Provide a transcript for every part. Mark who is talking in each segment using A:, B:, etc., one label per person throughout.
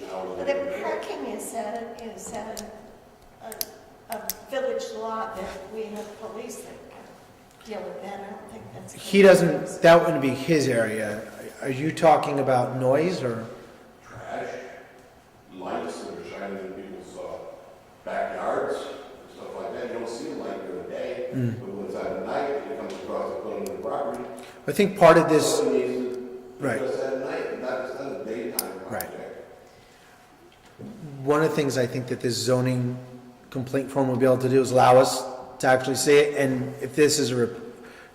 A: The parking is at, is at a, a, a village law that we have police that can deal with that, I don't think that's.
B: He doesn't, that wouldn't be his area. Are you talking about noise or?
C: trash, lights that are shining in people's uh, backyards and stuff like that. You don't see them like during the day,
B: Hmm.
C: but when it's at night, it comes across the building and property.
B: I think part of this,
C: Something needs to be
B: Right.
C: addressed at night, and not just on a daytime
B: Right.
C: project.
B: one of the things I think that this zoning complaint form will be able to do is allow us to actually see it. And if this is a rep-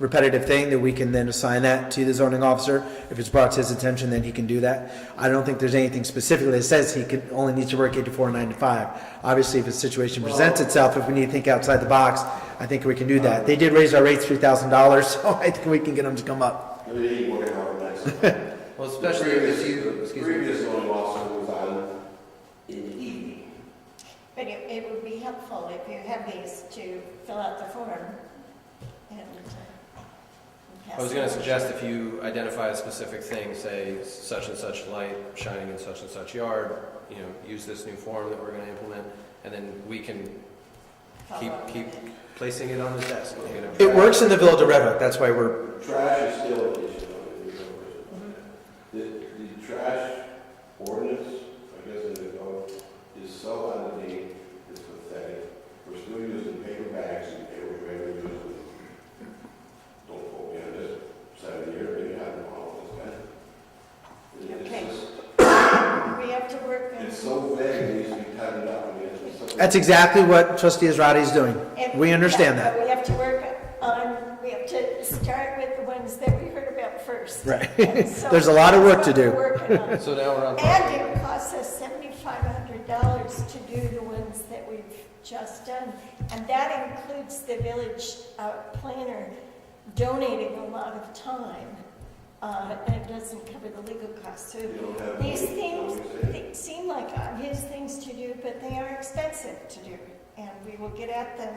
B: repetitive thing, that we can then assign that to the zoning officer. If it's brought to his attention, then he can do that. I don't think there's anything specifically that says he could, only needs to work eight to four, nine to five. Obviously, if a situation presents itself, if we need to think outside the box, I think we can do that. They did raise our rates three thousand dollars, so I think we can get them to come up.
C: Maybe they work out on that.
D: Well, especially if you,
C: The
D: excuse me,
C: previous zoning officer was on in the evening.
A: But it, it would be helpful if you have these to fill out the form and. uh, pass
D: I was gonna
A: it.
D: suggest if you identify a specific thing, say such and such light shining in such and such yard, you know, use this new form that we're gonna implement, and then we can keep,
A: Follow up
D: keep
A: with it.
D: placing it on his desk. you know.
B: It works in the Village of Red Hook, that's why we're,
C: Trash is still an issue, though, if you know. The, the trash ordinance, I guess it is, called, is so out of date, it's pathetic. We're still using paper bags and paper trays, we're using, don't quote me on this, seven years, maybe I don't know, it's been. It-
A: Okay.
C: It's just,
A: We have to work on.
C: it's so vague, it needs to be tightened up, I mean, it's just.
B: that's exactly what trustee Israedi is doing.
A: And-
B: We understand
A: yeah,
B: that.
A: But we have to work on, we have to start with the ones that we heard about first.
B: Right.
A: And so
B: There's a lot of work to
A: that's what
B: do.
A: we're working on.
D: So now we're on.
A: And it costs us seventy-five hundred dollars to do the ones that we've just done. And that includes the village uh, planner donating a lot of time. uh, And it doesn't cover the legal costs. So
C: You don't have.
A: these
C: money,
A: things
C: you know what I'm saying?
A: they seem like obvious things to do, but they are expensive to do. And we will get at them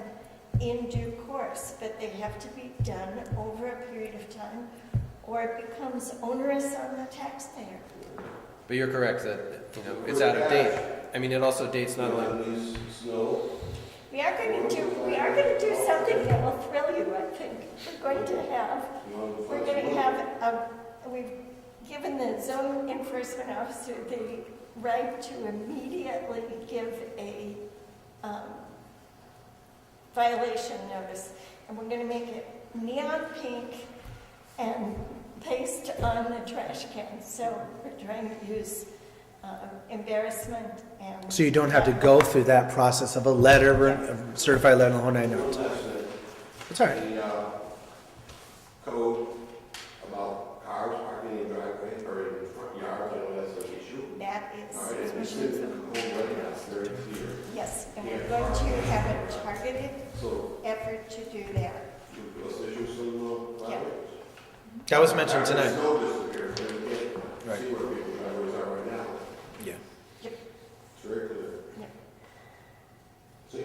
A: in due course, but they have to be done over a period of time or it becomes onerous on the taxpayer.
D: But you're correct that, you know, it's out of date. I mean, it also dates not only
C: You know, these snow,
A: We are going to do, we are going to do something that will thrill you, I think. We're going to have,
C: you know. the
A: we're going to have, a- we've given the zone enforcement officer the right to immediately give a um, violation notice. And we're going to make it neon pink and paste on the trash can. So we're trying to use uh, embarrassment and.
B: So you don't have to go through that process of a letter, a certified letter, the whole nine
C: One
B: yards.
C: last thing.
B: It's all right.
C: the uh, code about cars parking in driveway or in front yards, you know, that's an issue.
A: That
C: All right, and this
A: is,
C: is the code right now, it's very clear.
A: yes, and we're going to have a targeted
C: So,
A: effort to do that.
C: you- those issues will go
A: Yeah.
C: away.
B: That was mentioned
C: There's
B: tonight.
C: no disappear, so you can't
B: Right.
C: see where people's driveways are right now.
B: Yeah.
C: It's very clear.
A: Yeah.
C: See?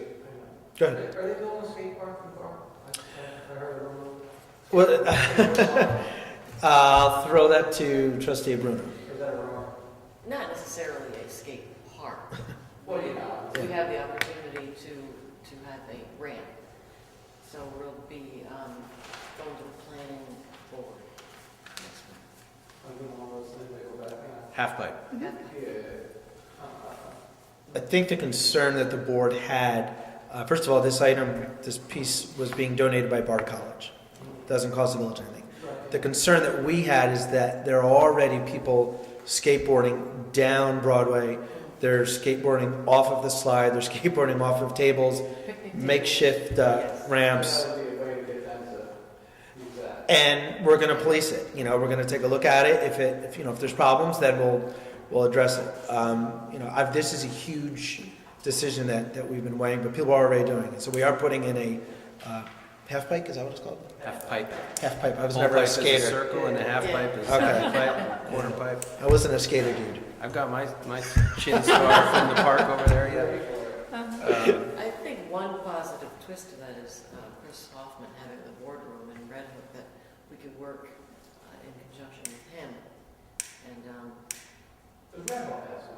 B: Go
E: Are
B: ahead.
E: they building a skate park in Carmel? I- I heard a rumor.
B: Well, uh, throw that to trustee Bruno.
E: Or is that a rumor?
F: not necessarily a skate park.
E: Well, you know.
F: We have the opportunity to, to have a ramp. So we'll be um, going to the planning board. next
E: I'm doing all those things, they go back in.
D: half pipe.
F: month.
E: Yeah. Uh,
B: I think the concern that the board had, uh, first of all, this item, this piece was being donated by Bard College. Doesn't cost the village anything.
E: Right.
B: The concern that we had is that there are already people skateboarding down Broadway. They're skateboarding off of the slide, they're skateboarding off of tables,
F: Picnic
B: makeshift uh,
F: Yes.
B: ramps.
E: That would be a way to get them to use that.
B: and we're going to police it. You know, we're going to take a look at it. If it, if, you know, if there's problems, then we'll we'll address it. Um, you know, I've, this is a huge decision that, that we've been weighing, but people are already doing it. So we are putting in a uh, half pipe. Is that what it's called?
D: Half pipe.
B: Half pipe. I was
D: Whole
B: never a
D: pipe is
B: skater.
D: Circle and a half pipe is
B: Okay.
D: half pipe, quarter pipe.
B: I wasn't a skater, dude.
D: I've got my, my chin scar from the park over there yet. Uh,
F: I think one positive twist to that is uh, Chris Hoffman having the boardroom in Red Hook that we could work uh, in conjunction with him and um,
E: The Red Hook has one.